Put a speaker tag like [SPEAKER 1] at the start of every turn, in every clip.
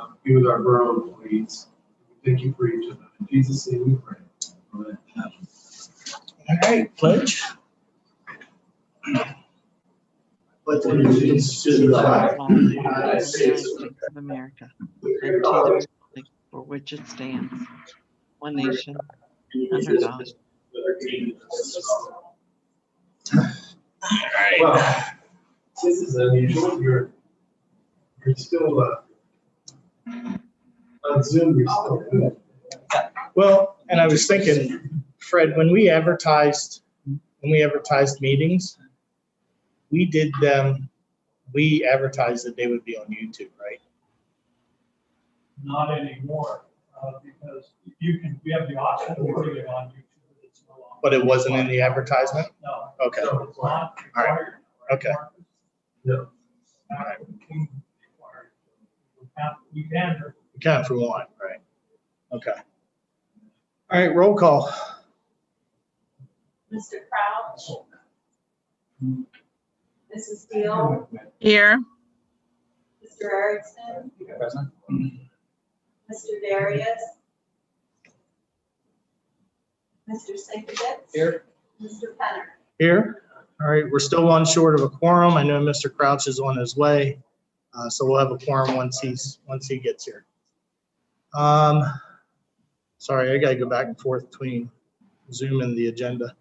[SPEAKER 1] um, be with our borough employees. We Thank you for each of them. In Jesus' name we pray. Amen.
[SPEAKER 2] All right, pledge.
[SPEAKER 3] pledge allegiance to the flag of the United States of America
[SPEAKER 4] um, of America and to
[SPEAKER 3] and
[SPEAKER 4] the
[SPEAKER 3] to
[SPEAKER 4] republic for which it stands, one
[SPEAKER 3] America,
[SPEAKER 4] nation,
[SPEAKER 3] the
[SPEAKER 4] under God,
[SPEAKER 3] Well,
[SPEAKER 1] Well, this is unusual. You're, you're still, uh, on Zoom, you're still good.
[SPEAKER 2] Well, and I was thinking, Fred, when we advertised, when we advertised meetings, we did them, we advertised that they would be on YouTube, right?
[SPEAKER 5] Not anymore, uh, because you can, we have the option to do it on YouTube, but it's no longer.
[SPEAKER 2] But it wasn't in the advertisement?
[SPEAKER 5] No.
[SPEAKER 2] Okay, all
[SPEAKER 5] So it's not required.
[SPEAKER 2] Okay.
[SPEAKER 5] Marcus?
[SPEAKER 1] No.
[SPEAKER 5] Not required. We have- We can,
[SPEAKER 2] we can if we want, right? Okay. All right, roll call.
[SPEAKER 6] Mr. Crouch. Mrs. Steele,
[SPEAKER 7] Here,
[SPEAKER 6] Mr. Erickson,
[SPEAKER 1] Present.
[SPEAKER 6] Mr. Darius. Mr. Sinkovich.
[SPEAKER 2] Here.
[SPEAKER 6] Mr. Penner.
[SPEAKER 2] Here. All right, we're still one short of a quorum. I know Mr. Crouch is on his way. uh, So we'll have a quorum once he's, once he gets here. Um, Sorry, I gotta go back and forth between Zoom and the agenda.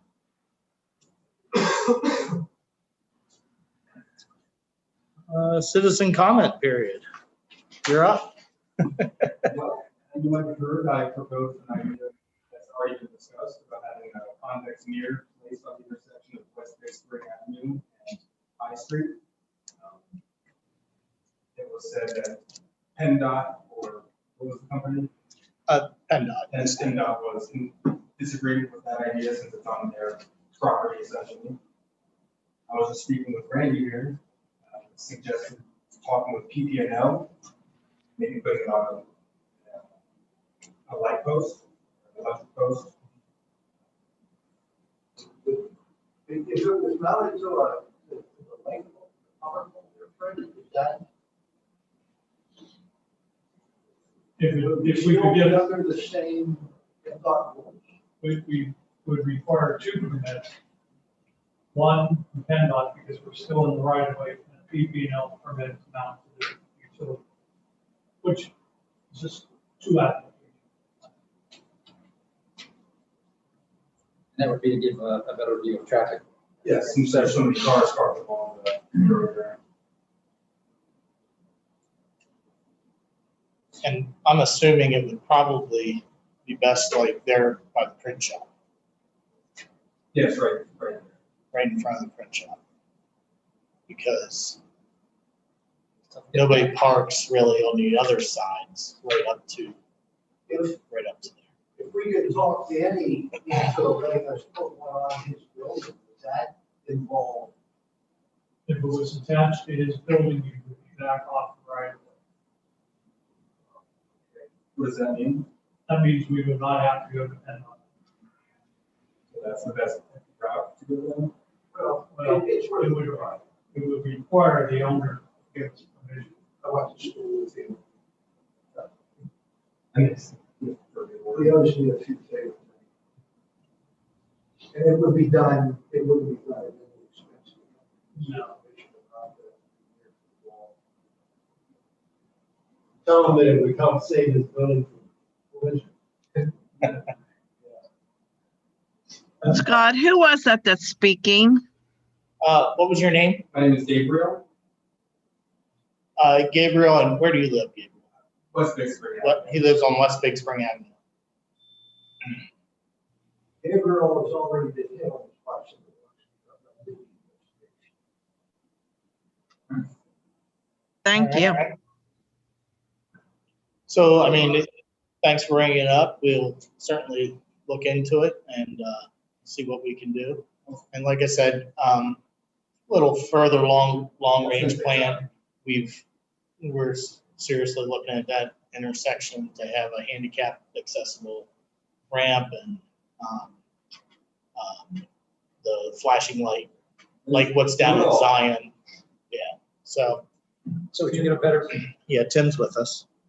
[SPEAKER 2] Uh, Citizen comment period. You're up.
[SPEAKER 8] You might have heard I proposed an idea that's already been discussed about having a convex mirror placed on the intersection of West Bay Spring Avenue and High Street. Um, It was said that PennDOT or what was the company?
[SPEAKER 2] And uh,
[SPEAKER 8] And PennDOT was in disagreement with that idea since it's on their property essentially. I was just speaking with Randy here, uh, suggested talking with PPNL, maybe putting it on uh, a, a light post, a electric post.
[SPEAKER 3] If if it was mounted to a, to a light pole, power pole, they're afraid of that.
[SPEAKER 5] if, if we could get,
[SPEAKER 3] They're Under the same deductible.
[SPEAKER 5] we, we would require two permits. One, from PennDOT, because we're still in the right of way, and a PP and L permit is not to the utility. Which is just two out.
[SPEAKER 9] And that would be to give a, a better view of traffic.
[SPEAKER 8] Yes. Since there's so many cars parked along the road there.
[SPEAKER 2] uh, and I'm assuming it would probably be best like there by the print shop,
[SPEAKER 8] Yes, right, right.
[SPEAKER 2] right in front of the print shop. Because nobody parks really on the other sides, right up to,
[SPEAKER 3] If,
[SPEAKER 2] right up to there.
[SPEAKER 3] if we could talk to any, into letting us put one on his building, does that involve?
[SPEAKER 5] If it was attached to his building, you would be back off the right of way.
[SPEAKER 8] What does that mean?
[SPEAKER 5] That means we would not have to go to PennDOT.
[SPEAKER 8] So That's the best route to go down.
[SPEAKER 3] Well,
[SPEAKER 5] Well,
[SPEAKER 3] it- it's really.
[SPEAKER 5] It would, it would require the owner to give us permission.
[SPEAKER 3] I went to school with him.
[SPEAKER 8] And it's.
[SPEAKER 3] He owes me a few favors. And it would be done, it would be done at any expense.
[SPEAKER 5] No.
[SPEAKER 1] Tell them that it would help save this building from collision.
[SPEAKER 7] Scott, who was that that's speaking?
[SPEAKER 2] Uh, what was your name?
[SPEAKER 8] My name is Gabriel,
[SPEAKER 2] Uh, Gabriel, and where do you live, Gabriel?
[SPEAKER 8] West Bay Spring.
[SPEAKER 2] What, he lives on West Big Spring Avenue.
[SPEAKER 3] Gabriel has already been hit on the question.
[SPEAKER 7] Thank you.
[SPEAKER 2] So, I mean, thanks for bringing it up. We'll certainly look into it and, uh, see what we can do. And like I said, um, little further long, long range plan, we've, we're seriously looking at that intersection to have a handicap accessible ramp and, um, um, the flashing light, like what's down at Zion. Yeah, so,
[SPEAKER 9] So we can get a better,
[SPEAKER 2] yeah, Tim's with us.